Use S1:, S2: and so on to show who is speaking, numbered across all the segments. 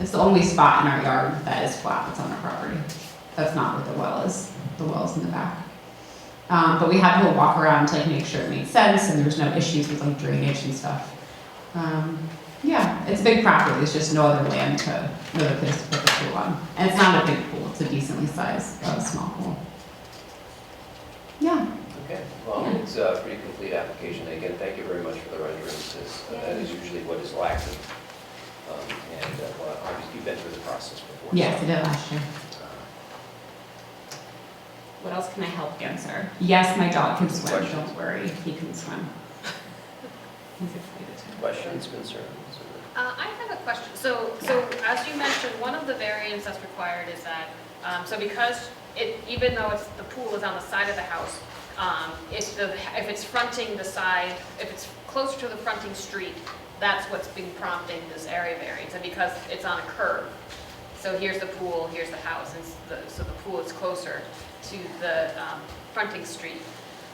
S1: It's the only spot in our yard that is flat that's on our property. That's not what the well is. The well's in the back. Um, but we had to walk around to like make sure it made sense and there was no issues with like drainage and stuff. Um, yeah, it's a big property. There's just no other land to, no other place to put the pool on. And it's not a big pool. It's a decently sized, uh, small pool. Yeah,
S2: Okay, well, it's a pretty complete application. Again, thank you very much for the renderings, because that is usually what is lacking. Um, And, uh, well, obviously, you've been through the process before. so,
S1: yes, I did last year.
S2: uh,
S3: What else can I help answer?
S1: Yes, my dog can swim.
S2: Questions?
S1: Don't worry, he can swim. He's excited.
S2: Questions, concerns? or-
S4: Uh, I have a question. So, so as you mentioned, one of the variants that's required is that, um, so because it, even though it's, the pool is on the side of the house, um, if the, if it's fronting the side, if it's closer to the fronting street, that's what's been prompting this area variance, and because it's on a curve. So here's the pool, here's the house, and s- the- so the pool is closer to the um, fronting street.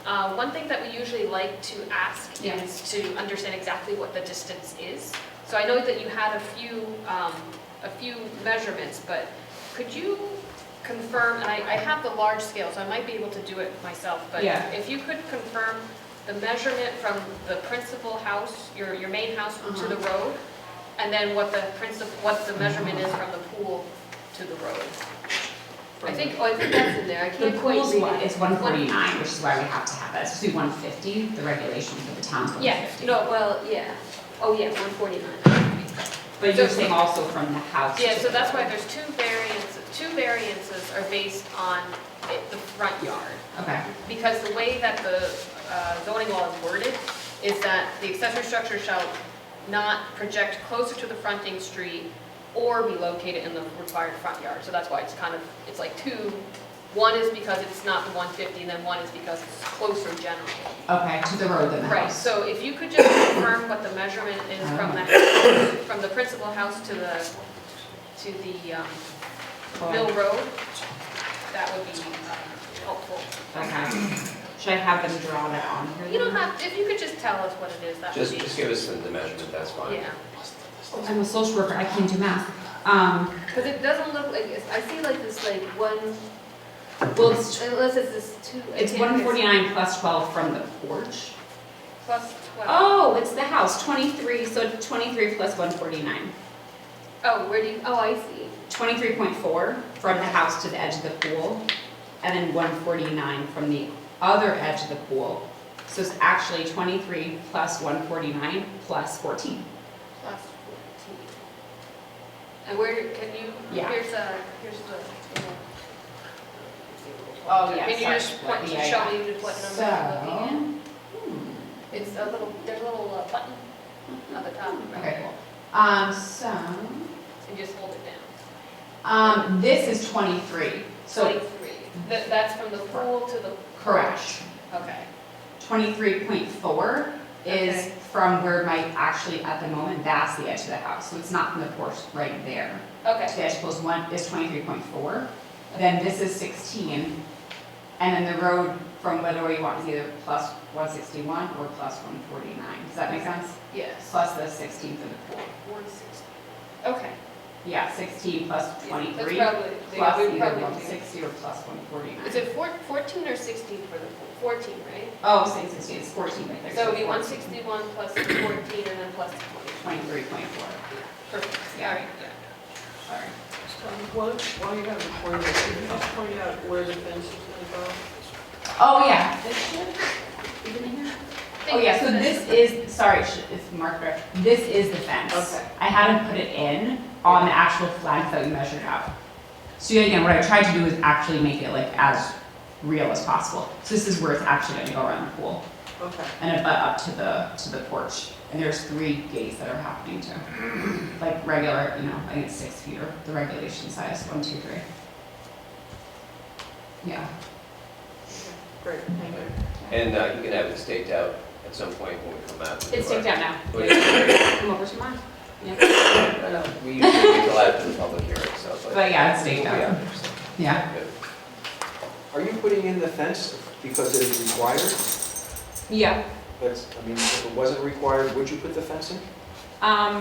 S4: Uh, One thing that we usually like to ask
S1: Yeah.
S4: is to understand exactly what the distance is. So I know that you had a few, um, a few measurements, but could you confirm, and I I have the large scale, so I might be able to do it myself, but
S1: Yeah.
S4: if you could confirm the measurement from the principal house, your, your main house to the
S1: Uh-huh.
S4: road, and then what the principal, what the measurement is from the pool to the road. I think, oh, I think that's in there, I
S1: The
S4: can't quite
S1: pool's
S4: read
S1: one
S4: it.
S1: is one forty-nine, which is why we have to have that, it's supposed to be one fifty, the regulation for the town's one
S4: Yeah,
S1: fifty.
S4: no, well, yeah, oh, yeah, one forty-nine.
S1: But you're saying also from the house.
S4: Yeah,
S1: to
S4: so
S1: the-
S4: that's why there's two variants, two variances are based on it- the front yard.
S1: Okay,
S4: Because the way that the uh, zoning law is worded is that the accessory structure shall not project closer to the fronting street or be located in the required front yard. So that's why it's kind of, it's like two, one is because it's not the 150, and then one is because it's closer generally.
S1: okay, to the road than the
S4: Right,
S1: house.
S4: so if you could just confirm what the measurement is from the, from the principal house to the, to the um, Mill Road, that would be um, helpful.
S1: Okay, should I have them draw that on here?
S4: You don't
S1: then?
S4: have, if you could just tell us what it is, that would
S2: Just,
S4: be,
S2: just give us the the measurement, that's fine.
S4: yeah.
S1: Oh, I'm a social worker, I can't do math. Um,
S4: Because it doesn't look like, it's- I see like this like one, well, it's- unless it's this two. I
S1: it's
S4: can't-
S1: one forty-nine plus twelve from the porch.
S4: Plus twelve.
S1: Oh, it's the house, twenty-three, so twenty-three plus one forty-nine.
S4: Oh, where do you, oh, I see.
S1: Twenty-three point four from the house to the edge of the pool, and then one forty-nine from the other edge of the pool. So it's actually twenty-three plus one forty-nine plus fourteen.
S4: Plus fourteen. And where, do- can you,
S1: Yeah.
S4: here's a, here's the.
S1: Oh, yeah,
S4: Can you
S1: sorry,
S4: just point,
S1: yeah,
S4: show
S1: yeah.
S4: me what number you're looking at?
S1: So, hmm,
S4: It's a little, there's a little uh, button on the top,
S1: hmm,
S4: right?
S1: okay, cool. Um, so,
S4: And just hold it down.
S1: um, this is twenty-three, so,
S4: Twenty-three. That, that's from the pool to the,
S1: correct.
S4: okay.
S1: Twenty-three point four is
S4: Okay.
S1: from where my, actually, at the moment, that's the edge of the house, so it's not from the porch right there.
S4: Okay,
S1: The edge pool is one, is twenty-three point four, then this is sixteen, and then the road from whatever you want is either plus one sixty-one or plus one forty-nine. Does that make sense?
S4: yes.
S1: Plus the sixteen for the pool.
S4: Okay.
S1: Yeah, sixteen plus
S4: That's
S1: twenty-three,
S4: probably,
S1: plus
S4: yeah, we
S1: either
S4: probably
S1: one
S4: do.
S1: sixty or plus one forty-nine.
S4: Is it four- 14 or 16 for the, pool? 14, right?
S1: Oh, same sixteen, it's fourteen right there.
S4: So it'd be
S1: 160.
S4: 161 plus the 14 and then plus the 20.
S1: Twenty-three point four,
S4: Perfect,
S1: Yeah.
S4: all right, yeah.
S1: sorry.
S5: While while you have it for you, can you just point out where the fence is going to go?
S1: Oh, yeah, this should, even in here? Oh, yeah, so this is, sorry, sh- it's marker, this is the fence.
S5: Okay.
S1: I hadn't put it in on the actual flag that we measured out. So yeah, again, what I tried to do is actually make it like as real as possible. So this is where it's actually gonna go around the pool
S5: Okay.
S1: and it butt up to the, to the porch. And there's three gates that are happening too. Like regular, you know, I think it's six feet or the regulation size, one, two, three. Yeah.
S5: Great, thank you.
S2: And uh, you can have it staked out at some point when we come out. with
S1: It's
S2: our-
S1: taken out now.
S2: Well, yeah,
S1: Come over tomorrow.
S2: I know, Uh, We usually wait till after the public hearing, so.
S1: But yeah, it's staked
S2: We'll be
S1: out.
S2: there, so,
S1: Yeah.
S2: good.
S6: Are you putting in the fence because it is required?
S1: Yeah.
S6: That's, I mean, if it wasn't required, would you put the fence in?
S1: Um,